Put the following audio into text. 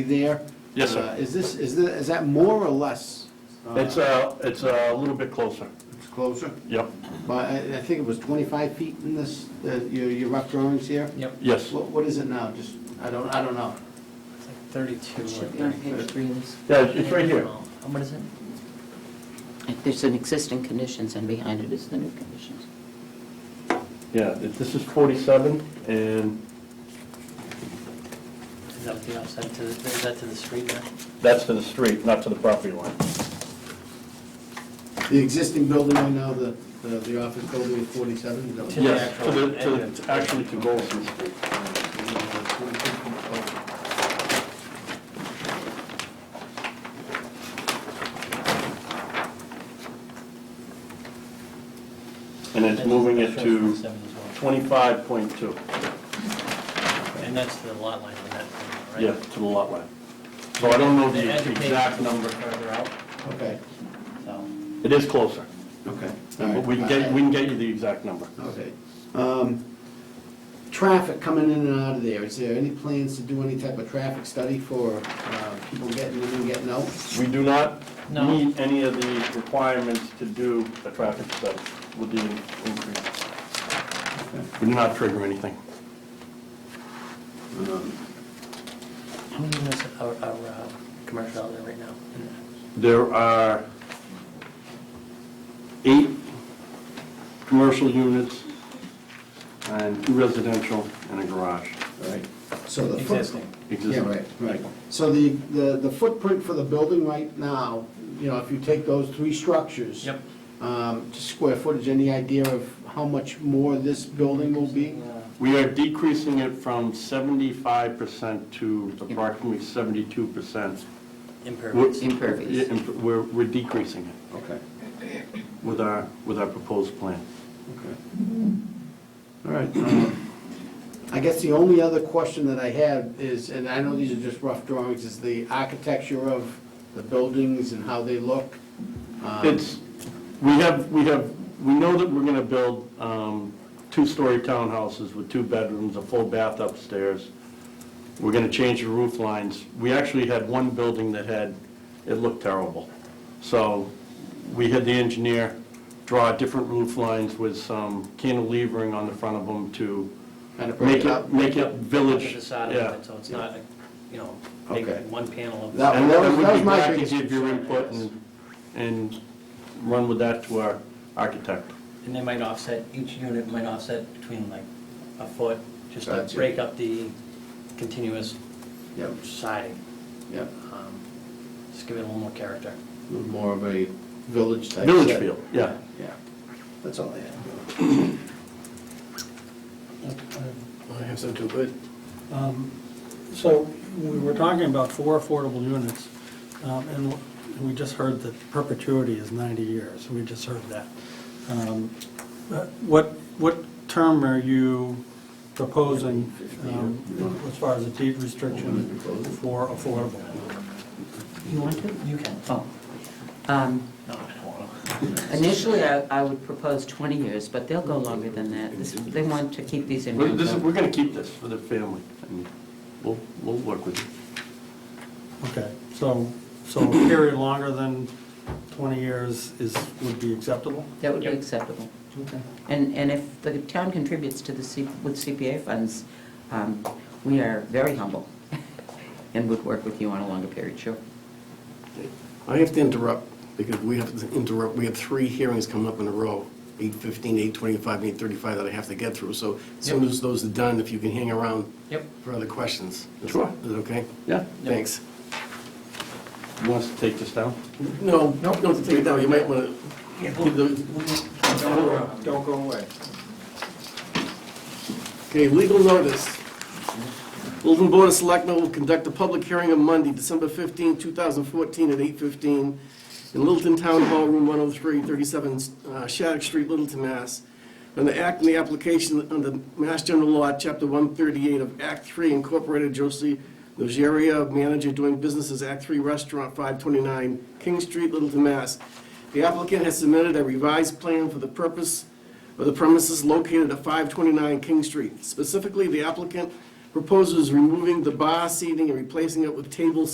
there. Yes, sir. Uh, Is this, is the, is that more or less? Uh, It's a, it's uh, a little bit closer. It's closer, Yep, but I, I think it was twenty-five feet in this, uh, your, your rough drawings here? Yep, yes. What, what is it now? Just, I don't, I don't know. it's like thirty-two or Should be on page thirty-three. three of this. Yeah, it's right here. What is it? There's an existing conditions, and behind it is the new conditions. Yeah, it- this is 47, and Is that the outside to the, is that to the street now? that's to the street, not to the property line. The existing building right now, the, the the office building is forty-seven? is that what- To the Yes, to the, actual to, the- actually to Goldston Street. And it's moving it That's to 47 as well. 25.2, And that's the lot line on that, thing, right? yeah, to the lot line. So I don't know The the education exact is number. Further out, Okay, so. It is closer, okay. all right. Uh, but we can get, we can get you the exact number. Okay. Um, Traffic coming in and out of there, is there any plans to do any type of traffic study for uh, people getting in and getting out? We do not No. meet any of the requirements to do a traffic study with the increase. We do not trigger anything. Um, How many units are, are, uh, commercial out there right now? in there? There are eight commercial units and two residential and a garage. Right, so the foot- Existing. Yeah, Existing. right, right. So the, the the footprint for the building right now, you know, if you take those three structures. Yep. um, Just square footage, any idea of how much more this building will be? Yeah. We are decreasing it from 75% to approximately 72%. Impervious. Impervious. Yeah, imp- We're, we're decreasing it Okay, with our, with our proposed plan. okay. All right. um, I guess the only other question that I have is, and I know these are just rough drawings, is the architecture of the buildings and how they look. Um, It's, we have, we have, we know that we're gonna build um, two-story townhouses with two bedrooms, a full bath upstairs. We're gonna change the roof lines. We actually had one building that had, it looked terrible. So we had the engineer draw different roof lines with some cantilevering on the front of them to Kind of break make it up. it, make it Look village. at the side yeah. of it, so it's not, a- you know, make Okay. one panel of. That- And was- then that we'd was be my glad to biggest give your concern, I input guess. and, and run with that to our architect. And they might offset, each unit might offset between like a foot, just to Gotcha. break up the continuous Yep, siding. yep. um, Just give it a little more character. More of a village type. Village set. feel, yeah. Yeah, that's all I have. I have some too, good. Um, So we were talking about four affordable units, um, and we just heard that perpetuity is 90 years. We just heard that. Um, but What, what term are you proposing um, as far as a deed restriction for affordable? You want to? You can. Oh. Um, No, I don't want Initially, I I would propose 20 years, but they'll go longer than that. This- They want to keep these in. We're, this, is- rental. we're gonna keep this for the family, and we'll, we'll work with you. Okay, so, so a period longer than 20 years is, would be acceptable? That would be acceptable. Okay. And, and if the town contributes to the, C- with CPA funds, um, we are very humble and would work with you on a longer period, sure. I have to interrupt, because we have to interrupt, we have three hearings coming up in a row, 8:15, 8:25, and 8:35 that I have to get through, so as soon as those are done, if you can hang around Yep. for other questions. Is- Sure. Is it okay? Yeah? Thanks. You want us to take this down? No, no, don't take it down, you might want to give the Don't go away. Okay, legal notice. Littleton Board of Selectmen will conduct a public hearing on Monday, December 15, 2014, at 8:15 in Littleton Town Hall, Room 103, 37 uh, Shattuck Street, Littleton, Mass. On the act and the application under Mass General Law, Chapter 138 of Act 3 Incorporated, Josie Nogeria, manager doing business as Act 3 Restaurant, 529 King Street, Littleton, Mass. The applicant has submitted a revised plan for the purpose of the premises located at 529 King Street. Specifically, the applicant Proposes removing the bar seating and replacing it with table